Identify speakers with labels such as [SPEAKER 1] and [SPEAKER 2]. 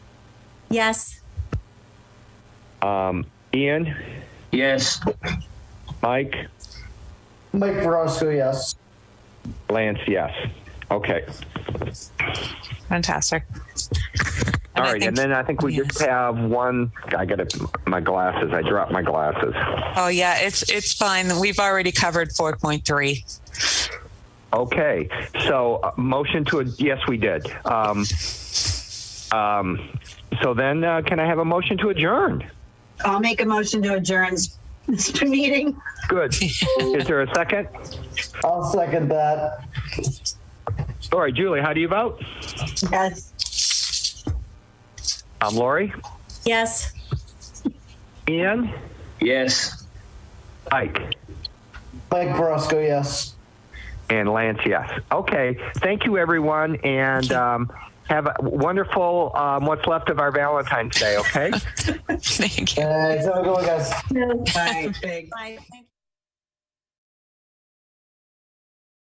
[SPEAKER 1] Yes.
[SPEAKER 2] Ian,
[SPEAKER 3] Yes.
[SPEAKER 2] Mike,
[SPEAKER 4] Mike Verosco, yes.
[SPEAKER 2] Lance, yes. Okay.
[SPEAKER 5] Fantastic.
[SPEAKER 2] All
[SPEAKER 5] I
[SPEAKER 2] right.
[SPEAKER 5] think-
[SPEAKER 2] And then I think we just
[SPEAKER 5] yes.
[SPEAKER 2] have one. I got to my glasses. I dropped my glasses.
[SPEAKER 5] Oh yeah, it's it's fine. We've already covered four point three.
[SPEAKER 2] Okay. So uh, motion to, ad- yes, we did. Um, um, so then uh, can I have a motion to adjourn?
[SPEAKER 6] I'll make a motion to adjourn this- this meeting.
[SPEAKER 2] Good. Is there a second?
[SPEAKER 4] I'll second that.
[SPEAKER 2] All right, Julie, how do you vote?
[SPEAKER 6] Yes.
[SPEAKER 2] I'm Lori.
[SPEAKER 1] Yes.
[SPEAKER 2] Ian,
[SPEAKER 3] Yes.
[SPEAKER 2] Mike.
[SPEAKER 4] Mike Verosco, yes.
[SPEAKER 2] And Lance, yes. Okay. Thank you, everyone, and um, have a wonderful um, what's left of our Valentine's Day. Okay.
[SPEAKER 5] Thank you.
[SPEAKER 4] Uh, so we're going, guys.
[SPEAKER 6] All right, big.
[SPEAKER 1] Bye. Thank you.